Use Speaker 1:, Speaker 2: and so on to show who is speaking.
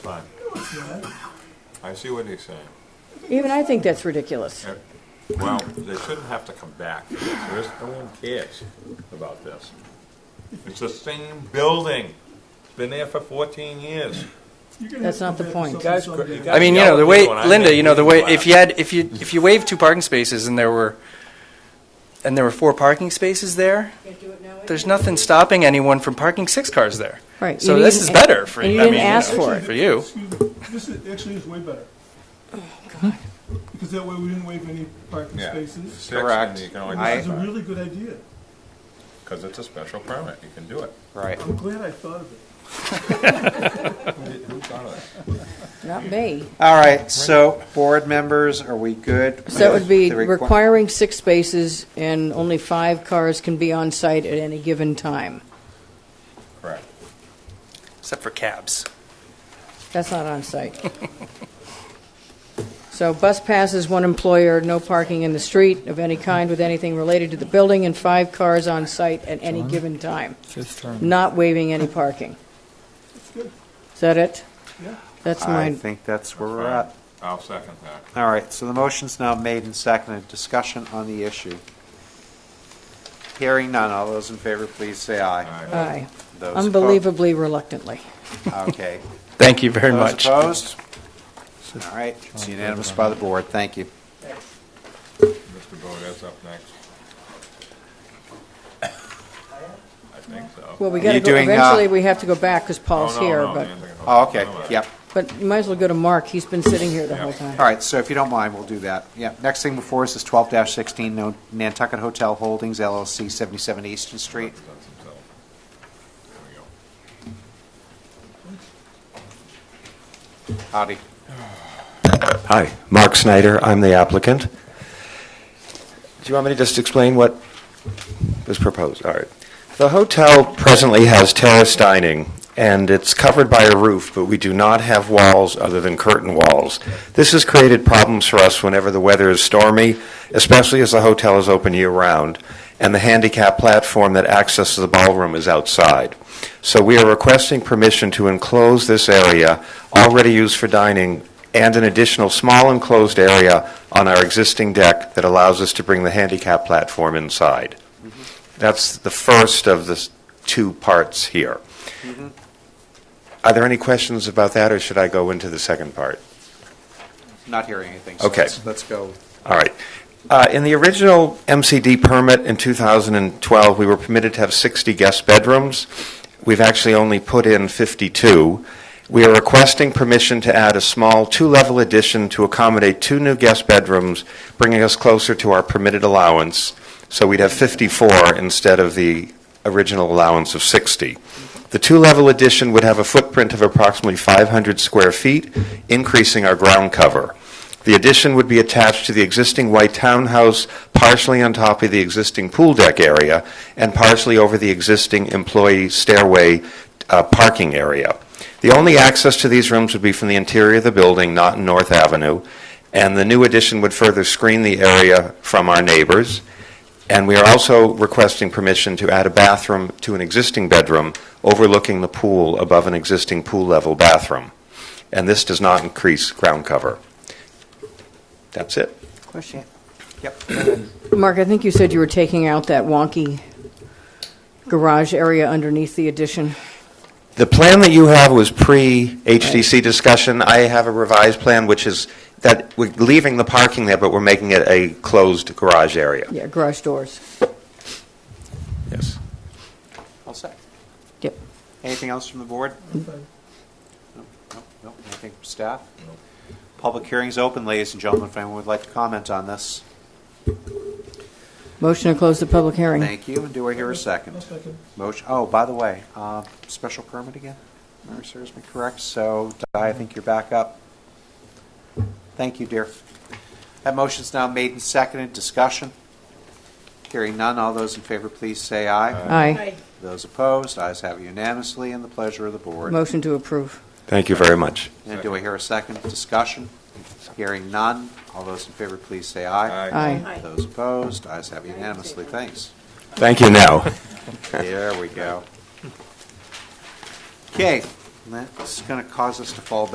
Speaker 1: Fine. I see what he's saying.
Speaker 2: Even I think that's ridiculous.
Speaker 1: Uh, Well, they shouldn't have to come back. There's, no one cares about this. It's the same building. It's been there for fourteen years.
Speaker 2: That's not the point.
Speaker 1: Guys, cr- you guys
Speaker 3: I mean, you know,
Speaker 1: yell
Speaker 3: the
Speaker 1: at
Speaker 3: way,
Speaker 1: me when I
Speaker 3: Linda,
Speaker 1: make
Speaker 3: you know, the way,
Speaker 1: people
Speaker 3: if you had, if you, if you waived two parking spaces and there were, and there were four parking spaces there, there's nothing stopping anyone from parking six cars there.
Speaker 2: Right.
Speaker 3: So
Speaker 2: You
Speaker 3: this
Speaker 2: didn't-
Speaker 3: is better for, I
Speaker 2: and
Speaker 3: mean,
Speaker 2: you
Speaker 3: you
Speaker 2: didn't ask for
Speaker 3: know,
Speaker 2: it.
Speaker 3: for you.
Speaker 4: This is, actually is way better,
Speaker 2: God.
Speaker 4: because that way we didn't waive any parking
Speaker 1: Yeah.
Speaker 4: spaces.
Speaker 1: Six, and
Speaker 5: Correct.
Speaker 1: you can only
Speaker 5: I-
Speaker 4: This is a
Speaker 3: Mhm.
Speaker 4: really good idea.
Speaker 1: Because it's a special permit, you can do it.
Speaker 5: Right.
Speaker 4: I'm glad I thought of it.
Speaker 1: Who thought of that?
Speaker 2: Not me.
Speaker 5: All right, so board members, are we good?
Speaker 2: So it would be
Speaker 5: with the requi-
Speaker 2: requiring six spaces and only five cars can be on site at any given time.
Speaker 1: Correct.
Speaker 3: Except for cabs.
Speaker 2: That's not on site. So bus passes, one employer, no parking in the street of any kind with anything related to the building, and five cars on site at any given time. Not waiving any parking. Is that it?
Speaker 4: Yeah.
Speaker 2: That's
Speaker 5: I
Speaker 2: mine.
Speaker 5: think that's where we're at.
Speaker 1: I'll second that.
Speaker 5: All right, so the motion's now made and seconded. Discussion on the issue. Hearing none. All those in favor, please say aye.
Speaker 2: Aye.
Speaker 5: Those oppo-
Speaker 2: Unbelievably reluctantly.
Speaker 5: Okay.
Speaker 3: Thank you very
Speaker 5: Those
Speaker 3: much.
Speaker 5: opposed? All right, it's unanimous by the board. Thank you.
Speaker 1: Mr. Bode's up next. I think so.
Speaker 2: Well, we gotta
Speaker 5: You
Speaker 2: go,
Speaker 5: doing, uh,
Speaker 2: eventually we have to go back because
Speaker 1: Oh,
Speaker 2: Paul's
Speaker 1: no,
Speaker 2: here,
Speaker 1: no,
Speaker 2: but,
Speaker 1: Nancy, hold
Speaker 5: Oh,
Speaker 1: on,
Speaker 5: okay,
Speaker 1: hold on.
Speaker 5: yep.
Speaker 2: but you might as well go to Mark. He's been sitting here the
Speaker 1: Yeah.
Speaker 2: whole time.
Speaker 5: All right, so if you don't mind, we'll do that. Yeah, next thing before us is twelve sixteen, no Nantucket Hotel Holdings LLC, seventy-seven Easton Street.
Speaker 1: That's himself. There we go.
Speaker 5: Howdy.
Speaker 6: Hi, Mark Snyder, I'm the applicant. Do you want me to just explain what was proposed? All right. The hotel presently has terrace dining, and it's covered by a roof, but we do not have walls other than curtain walls. This has created problems for us whenever the weather is stormy, especially as the hotel is open year-round, and the handicap platform that accesses the ballroom is outside. So we are requesting permission to enclose this area, already used for dining, and an additional small enclosed area on our existing deck that allows us to bring the handicap platform inside. That's the first of the s- two parts here. Are there any questions about that, or should I go into the second part?
Speaker 5: Not hearing anything, so
Speaker 6: Okay.
Speaker 5: let's, let's go.
Speaker 6: All right. Uh, In the original MCD permit in 2012, we were permitted to have 60 guest bedrooms. We've actually only put in 52. We are requesting permission to add a small two-level addition to accommodate two new guest bedrooms, bringing us closer to our permitted allowance, so we'd have 54 instead of the original allowance of 60. The two-level addition would have a footprint of approximately 500 square feet, increasing our ground cover. The addition would be attached to the existing white townhouse, partially on top of the existing pool deck area, and partially over the existing employee stairway uh, parking area. The only access to these rooms would be from the interior of the building, not in North Avenue, and the new addition would further screen the area from our neighbors. And we are also requesting permission to add a bathroom to an existing bedroom overlooking the pool above an existing pool-level bathroom. And this does not increase ground cover. That's it.
Speaker 5: Question. Yep.
Speaker 2: Mark, I think you said you were taking out that wonky garage area underneath the addition.
Speaker 6: The plan that you have was pre-HDC discussion. I have a revised plan, which is that we're leaving the parking there, but we're making it a closed garage area.
Speaker 2: Yeah, garage doors.
Speaker 6: Yes.
Speaker 5: All set.
Speaker 2: Yep.
Speaker 5: Anything else from the board?
Speaker 4: Okay.
Speaker 5: Nope, nope, nope. Anything from staff? Public hearing's open, ladies and gentlemen, if anyone would like to comment on this.
Speaker 2: Motion to close the public hearing.
Speaker 5: Thank you, and do I hear a
Speaker 4: I'll
Speaker 5: second?
Speaker 4: second.
Speaker 5: Motion, oh, by the way, uh, special permit again? Mary serves me correct, so Di, I think you're back up. Thank you, dear. That motion's now made and seconded, discussion. Hearing none, all those in favor, please say aye.
Speaker 2: Aye.
Speaker 5: Those opposed, ayes have unanimously, and the pleasure of the board.
Speaker 2: Motion to approve.
Speaker 6: Thank you very much.
Speaker 5: And do I hear a second discussion? Hearing none, all those in favor, please say aye.
Speaker 2: Aye.
Speaker 5: Those opposed, ayes have unanimously, thanks.
Speaker 6: Thank you now.
Speaker 5: There we go. Okay, that's going to cause us to fall back